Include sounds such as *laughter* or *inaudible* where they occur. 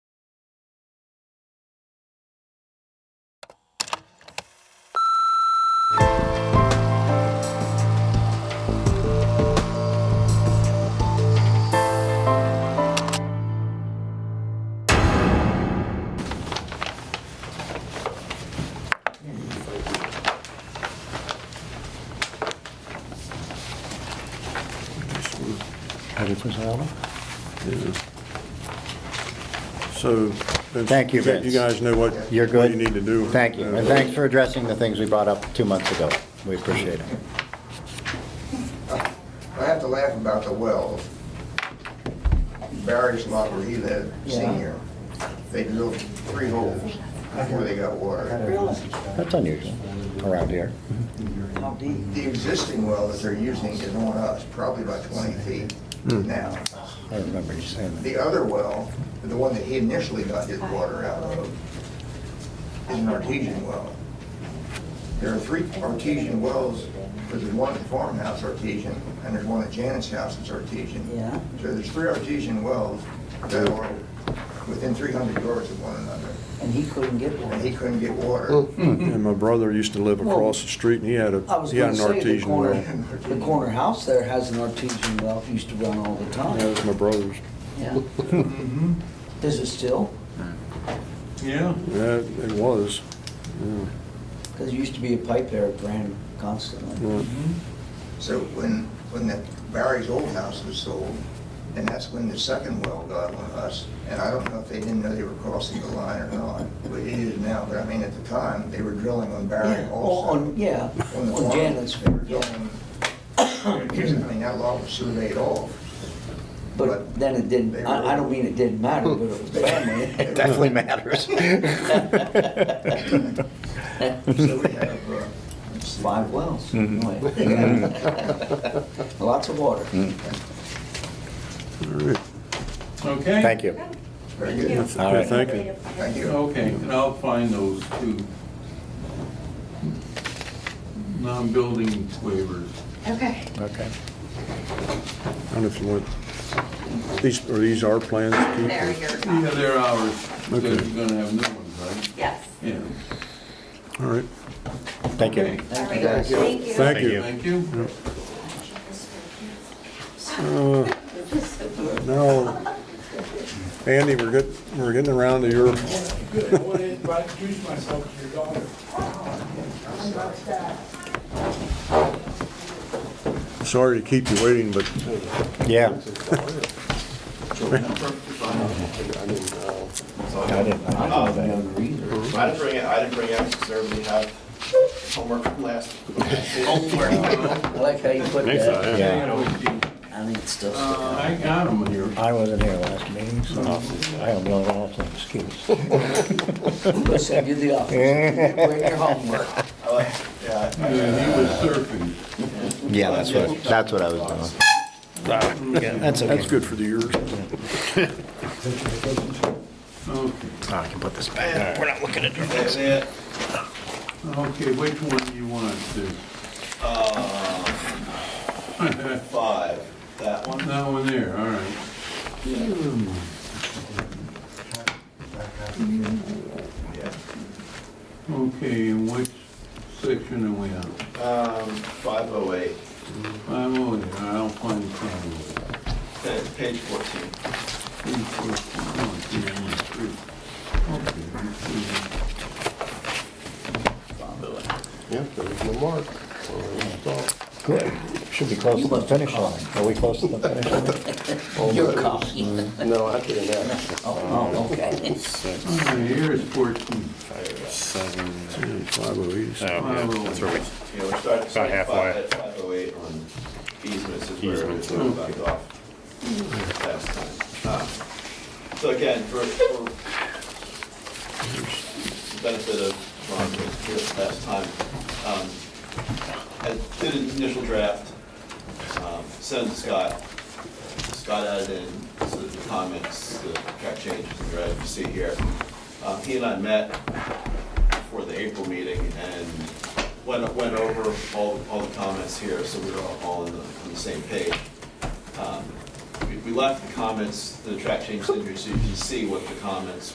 difference, I don't know. So. Vince, Thank you, you- Vince. You guys know what. You're What good? you need to do. Uh, Thank you, and thanks for addressing the things we brought up two months ago. We appreciate it. I have to laugh about the wells. Barry's lot where he lived, senior, they drilled three holes before they got water. Really? That's unusual around here. How deep? The existing well that they're using is on us, probably about 20 feet now. I remember you saying that. The other well, the one that he initially got his water out of, is an artesian well. There are three artesian wells, there's one at the farmhouse artesian, and there's one at Janet's house that's artesian. Yeah. So there's three artesian wells that are within 300 yards of one another, And he couldn't get one. and he couldn't get water. And my brother used to live across the street, and he had I was a, he had gonna an say, the artesian well. corner, the corner house there has an artesian well, it used to run all the That time. was my brother's. *laughs* Yeah. Is it still? Yeah. Yeah, it was. Because there used to be a pipe there that ran constantly. Yeah. So when, when the Barry's old house was sold, and that's when the second well got on us, and I don't know if they didn't know they were crossing the line or not, but it is now, but I mean, at the time, they were drilling on Barry Yeah, oh, also. on, yeah, On the on farm, Janet's, They were yeah. drilling, I mean, that lot was surveyed off. But then it didn't, I, I don't mean it didn't matter, but it *laughs* was family. It definitely *laughs* matters. So we have, uh, Five wells. anyway. *laughs* Lots of water. Okay? Thank you. very good, Thank All Yeah, right. Thank you. thank you. Okay, and I'll find those two non-building waivers. Okay. Okay. I don't know if you want, these, are these our plans? Keith? There, you're. Yeah, they're ours, because Okay. you're gonna have new ones, right? Yes. Yeah. All right. Thank you. Okay. All Thank you right, guys. thank you. Thank you. Thank you. Now, Andy, we're getting, we're getting around to your, Good, I want to introduce myself to your daughter. sorry to keep you waiting, but Yeah. I didn't, I didn't know that. I didn't bring it, I didn't bring it, I necessarily have homework from last. I like how you put that. Yeah, I think it's still. Uh, I got them here. I wasn't here last meeting, so I am really off an excuse. We'll send you the office. You Bring your homework. I like- Yeah, I- Yeah, he was surfing. Yeah, that's what, that's what I was doing. That's okay. that's good for the years. Okay, I can put this back. We're not looking at it. that's it. okay, which one do you want to? Uh, *laughs* Five, that one. That one there, all right. Okay, and which section are we on? Um, five oh eight, I'm over there, I'll find some. page fourteen. Three, four, five, one, two, one, three. Okay, let's see. Good. Should be close to the finish line. Are we close to the finish line? Your copy. *laughs* No, I didn't have. Oh, oh, okay. All right, Here is 14. Five oh eight. Yeah, we're starting, starting halfway. five, at five oh eight on easements is where we left off last time. Um, So again, for, for the benefit of Ron, who was here last time, um, I did an initial draft, um, sent it to Scott. Scott added in some of the comments that got changes and read, you see here. Um, He and I met for the April meeting and went, went over all, all the comments here, so we were all on the, on the same page. Um, we- We left the comments, the track change, so you can see what the comments